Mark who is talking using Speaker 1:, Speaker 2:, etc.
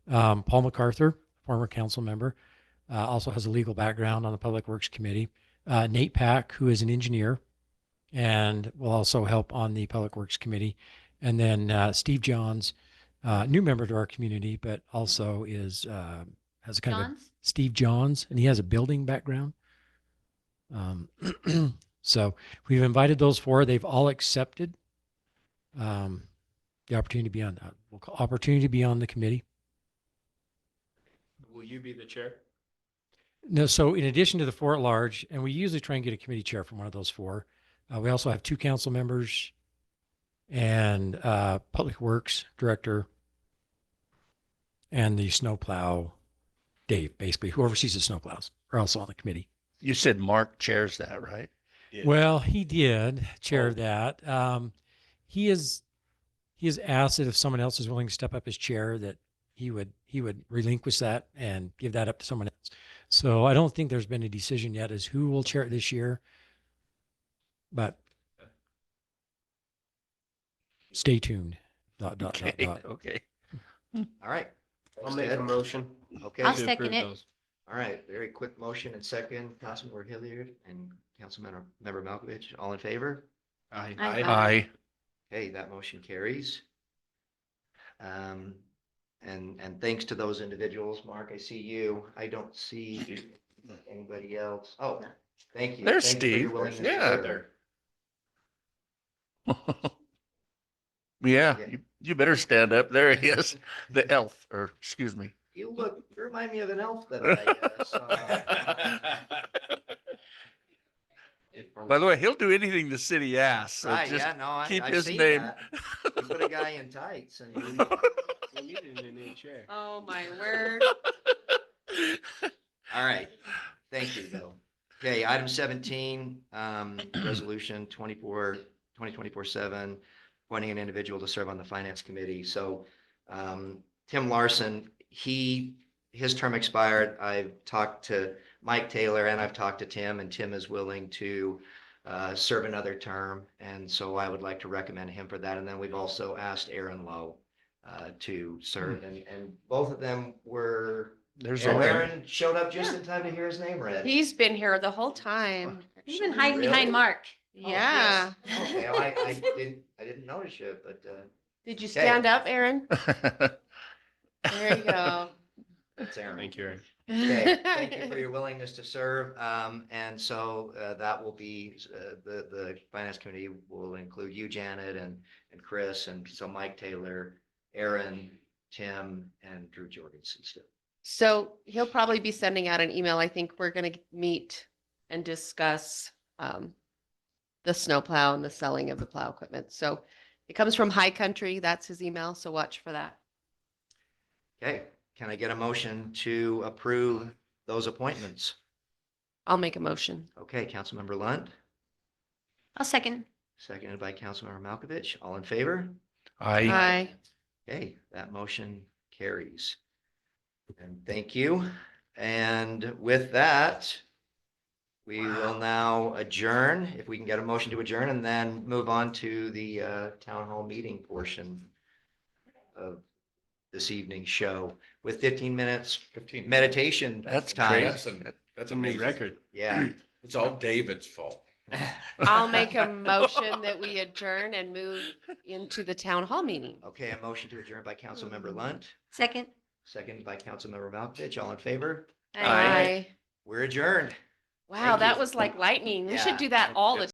Speaker 1: Um, Paul MacArthur, former council member, uh, also has a legal background on the Public Works Committee. Uh, Nate Pack, who is an engineer and will also help on the Public Works Committee. And then uh, Steve Johns, uh, new member to our community, but also is, uh, has a kind of a
Speaker 2: John's?
Speaker 1: Steve Johns, and he has a building background. Um, so we've invited those four. They've all accepted um, the opportunity to be on that we'll call opportunity to be on the committee.
Speaker 3: Will you be the chair?
Speaker 1: No, so in addition to the four at large, and we usually try and get a committee chair from one of those four. Uh, we also have two council members and uh, public works director and the snowplow Dave, basically whoever sees the snowplows are also on the committee.
Speaker 4: You said Mark chairs that, right?
Speaker 3: Yeah.
Speaker 1: Well, he did chair
Speaker 4: Oh.
Speaker 1: that. Um, he is he has asked that if someone else is willing to step up as chair, that he would he would relinquish that and give that up to someone else. So I don't think there's been a decision yet as who will chair it this year, but stay tuned. Dot, dot, dot,
Speaker 5: Uh,
Speaker 4: Okay,
Speaker 1: dot.
Speaker 4: okay.
Speaker 5: All right, I'll
Speaker 3: Sounds
Speaker 5: make a
Speaker 3: good.
Speaker 5: motion. Okay,
Speaker 2: I'll
Speaker 3: To
Speaker 2: second
Speaker 3: approve
Speaker 2: it.
Speaker 3: those.
Speaker 5: all right, very quick motion and second, Councilmember Hilliard and Councilmember Member Malkovich, all in favor?
Speaker 3: Aye.
Speaker 2: Aye.
Speaker 4: Aye.
Speaker 5: Okay, that motion carries. Um, and, and thanks to those individuals, Mark, I see you. I don't see anybody else. Oh, thank you.
Speaker 4: There's
Speaker 5: Thank you for your
Speaker 4: Steve.
Speaker 5: willingness to
Speaker 4: Yeah.
Speaker 5: serve.
Speaker 4: Yeah,
Speaker 5: Yeah.
Speaker 4: you, you better stand up. There he is, the elf, or excuse me.
Speaker 5: You look, you remind me of an elf that I uh, saw. Oh.
Speaker 4: By the way, he'll do anything the city asks, so
Speaker 5: Right,
Speaker 4: just
Speaker 5: Ah, yeah, no, I,
Speaker 4: keep
Speaker 5: I
Speaker 4: his
Speaker 5: see
Speaker 4: name.
Speaker 5: that. Mm-hmm. You put a guy in tights and you-
Speaker 3: Well, you didn't in the chair.
Speaker 2: Oh, my word.
Speaker 5: All right. Thank you, Bill. Okay, item seventeen, um, resolution 24 2024 seven, appointing an individual to serve on the finance committee. So, um, Tim Larson, he, his term expired. I've talked to Mike Taylor and I've talked to Tim and Tim is willing to, uh, serve another term. And so I would like to recommend him for that. And then we've also asked Aaron Lowe, uh, to serve and, and both of them were
Speaker 4: There's
Speaker 5: and
Speaker 4: a,
Speaker 5: Aaron showed up just in time to hear his name read.
Speaker 6: He's been here the whole time.
Speaker 2: He's been hiding behind
Speaker 5: Really?
Speaker 2: Mark.
Speaker 5: Oh,
Speaker 6: Yeah.
Speaker 5: yes. Okay, well, I, I didn't, I didn't notice it, but, uh,
Speaker 6: Did you
Speaker 5: Okay.
Speaker 6: stand up, Aaron? There you go.
Speaker 5: it's Aaron.
Speaker 3: Thank you, Eric.
Speaker 5: Okay, thank you for your willingness to serve. Um, and so, uh, that will be, uh, the, the finance committee will include you, Janet, and, and Chris, and so Mike Taylor, Aaron, Tim, and Drew Jorgensen still.
Speaker 6: So he'll probably be sending out an email. I think we're gonna meet and discuss um the snowplow and the selling of the plow equipment. So it comes from High Country. That's his email, so watch for that.
Speaker 5: Okay, can I get a motion to approve those appointments?
Speaker 6: I'll make a motion.
Speaker 5: Okay, Councilmember Lunt,
Speaker 2: I'll second.
Speaker 5: seconded by Councilmember Malkovich, all in favor?
Speaker 4: I,
Speaker 6: Aye.
Speaker 5: Okay, that motion carries. And thank you. And with that, we will now adjourn, if we can get a motion to adjourn, and then move on to the uh, town hall meeting portion of this evening's show with 15 minutes
Speaker 7: Fifteen.
Speaker 5: meditation.
Speaker 4: that's
Speaker 5: time.
Speaker 4: crazy.
Speaker 7: That's a, that's
Speaker 3: It's
Speaker 7: a
Speaker 3: a new
Speaker 7: amazing.
Speaker 3: record.
Speaker 5: Yeah.
Speaker 7: It's all David's fault.
Speaker 6: I'll make a motion that we adjourn and move into the town hall meeting.
Speaker 5: Okay, a motion to adjourn by Councilmember Lunt,
Speaker 2: Second.
Speaker 5: second by Councilmember Malkovich. All in favor?
Speaker 4: Aye.
Speaker 5: We're adjourned.
Speaker 6: Wow,
Speaker 5: Thank
Speaker 6: that
Speaker 5: you.
Speaker 6: was like lightning. We
Speaker 5: Yeah.
Speaker 6: should do that all the